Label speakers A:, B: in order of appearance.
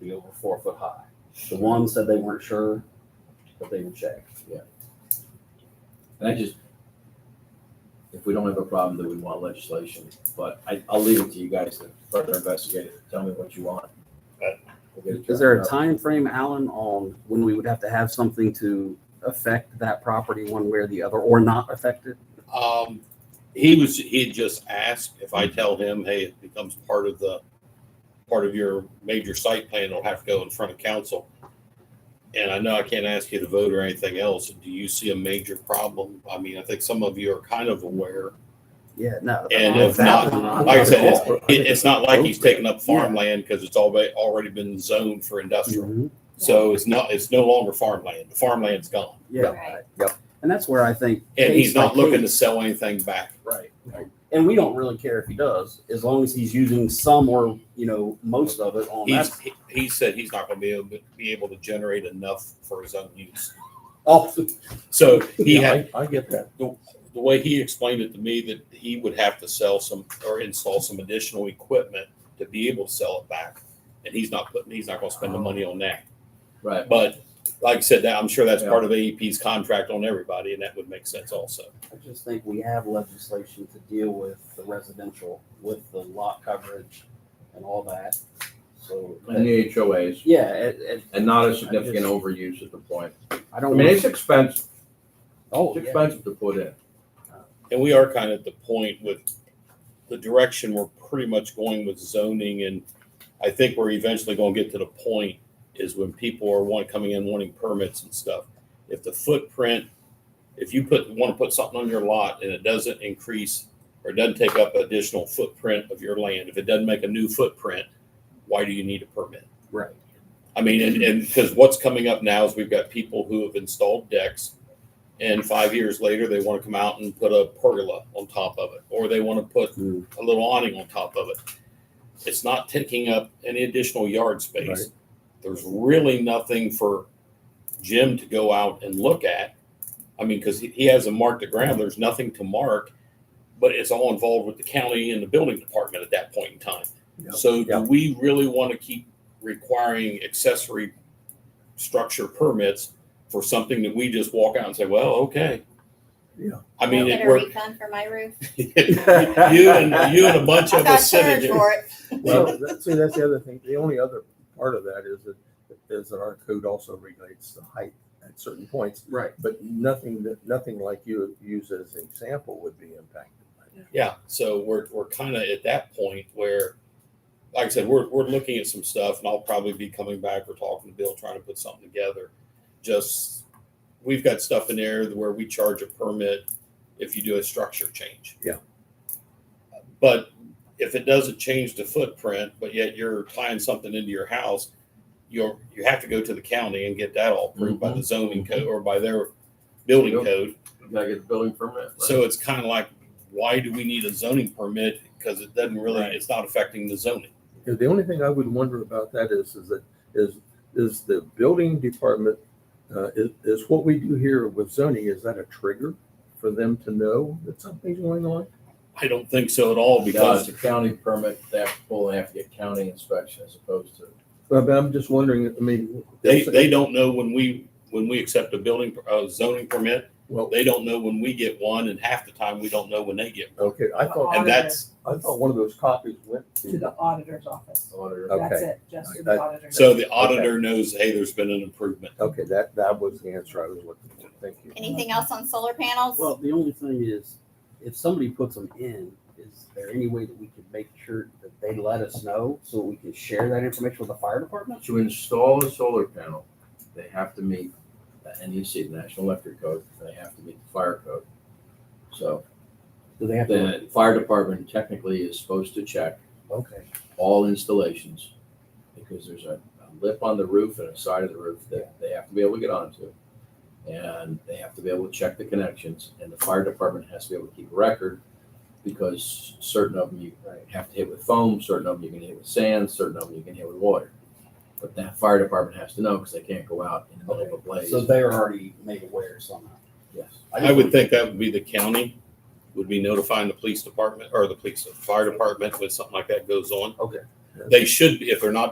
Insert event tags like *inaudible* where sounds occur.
A: be over four foot high.
B: The one said they weren't sure, but they would check.
C: And I just, if we don't have a problem, then we want legislation, but I, I'll leave it to you guys to further investigate it. Tell me what you want.
A: Right.
C: We'll get it
B: Is there a
C: drafted up.
B: time frame, Alan, on when we would have to have something to affect that property one way or the other, or not affect it?
D: Um, he was, he had just asked if I tell him, hey, it becomes part of the, part of your major site plan, it'll have to go in front of council. And I know I can't ask you to vote or anything else. Do you see a major problem? I mean, I think some of you are kind of aware.
B: Yeah, no.
D: And
B: that-
D: if not,
B: that-
D: Like I said,
C: it's-
D: It, it's not like he's taking up farmland because it's already, already been zoned for industrial.
B: Mhm.
D: So it's not, it's no longer farmland. The farmland's gone.
B: Yeah,
E: Right.
B: yep. And that's where I think.
D: And he's
B: case by
D: not looking to
B: case-
D: sell anything back.
C: Right.
B: And we don't really care if he does, as long as he's using some or, you know, most of it on that.
D: He's, he- he said he's not gonna be able, to- be able to generate enough for his own use.
B: Oh,
D: So he had,
C: I get that.
D: the, the way he explained it to me, that he would have to sell some, or install some additional equipment to be able to sell it back. And he's not putting, he's not gonna spend the money on that.
C: Right.
D: But like I said, that, I'm sure that's part of AEP's contract on everybody, and that would make sense also.
B: I just think we have legislation to deal with the residential, with the lot coverage and all that, so.
C: And the HOAs,
B: Yeah, it, it,
C: and not a significant overuse at the point.
B: I
C: I
B: don't.
C: mean, it's expensive.
B: Oh,
C: It's
B: yeah.
C: expensive to put in.
D: And we are kind of at the point with the direction we're pretty much going with zoning and I think we're eventually gonna get to the point is when people are want, coming in wanting permits and stuff. If the footprint, if you put, wanna put something on your lot and it doesn't increase or doesn't take up additional footprint of your land, if it doesn't make a new footprint, why do you need a permit?
B: Right.
D: I mean, and, and because what's coming up now is we've got people who have installed decks and five years later, they want to come out and put a pergola on top of it, or they want to put
B: Mm.
D: a little awning on top of it. It's not taking up any additional yard
B: Right.
D: space. There's really nothing for Jim to go out and look at. I mean, because he, he hasn't marked the ground, there's nothing to mark, but it's all involved with the county and the building department at that point in time.
B: Yep.
D: So do
B: Yep.
D: we really want to keep requiring accessory structure permits for something that we just walk out and say, well, okay?
C: Yeah.
D: I mean,
E: I'll
D: it
E: get a
D: worked.
E: refund for my roof.
D: *laughs*
B: *laughs*
D: You and, you and a bunch
E: *laughs* I
D: of
E: got
D: us sitting
E: charged
D: there.
E: for it.
F: Well, that- see, that's the other thing. The only other part of that is that, is that our code also regulates the height at certain points,
B: Right.
F: but nothing that, nothing like you use as an example would be impacted by that.
D: Yeah, so we're, we're kind of at that point where, like I said, we're, we're looking at some stuff and I'll probably be coming back or talking to Bill, trying to put something together. Just, we've got stuff in there where we charge a permit if you do a structure change.
F: Yeah.
D: But if it doesn't change the footprint, but yet you're tying something into your house, you're, you have to go to the county and get that all approved by the zoning code or by their building
C: Yep.
D: code.
C: You gotta get the building permit. right?
D: So it's kind of like, why do we need a zoning permit? Because it doesn't really, it's not affecting the zoning.
F: Yeah, The only thing I would wonder about that is, is that, is, is the building department, uh, is, is what we do here with zoning, is that a trigger for them to know that something's going on?
D: I don't think so at all
C: Because
D: because
C: it's a county permit, they have to pull, they have to get county inspection as opposed to.
F: But but I'm just wondering, I mean.
D: they, they don't know when we, when we accept a building, uh, zoning permit.
F: Well,
D: They don't know when we get one and half the time we don't know when they get. one.
F: okay, I thought,
D: And that's,
F: I thought one of those copies went
G: to
F: to,
G: the auditor's office.
C: Auditor.
G: That's
F: Okay.
G: it, just to
F: That-
G: the auditor's.
D: so the auditor knows, hey, there's been an improvement.
F: okay, that, that was the answer I was looking for. Thank you.
E: Anything else on solar panels?
B: Well, the only thing is, if somebody puts them in, is there any way that we could make sure that they let us know so we can share that information with the fire department?
C: To install a solar panel, they have to meet the NEC, the National Electric Code, and they have to meet the fire code. So
B: Do they have to?
C: the fire department technically is supposed to check
B: Okay,
C: all installations because there's a a lip on the roof and a side of the roof that they have to be able to get onto. And they have to be able to check the connections and the fire department has to be able to keep a record because certain of them you
B: Right.
C: have to hit with foam, certain of them you can hit with sand, certain of them you can hit with water. But that fire department has to know because they can't go out in the middle of a blaze.
B: so they're already made aware somehow.
C: Yes.
B: just
D: I would
B: want-
D: think that would be the county would be notifying the police department or the police, fire department when something like that goes on.
B: Okay.
D: They should, be if they're not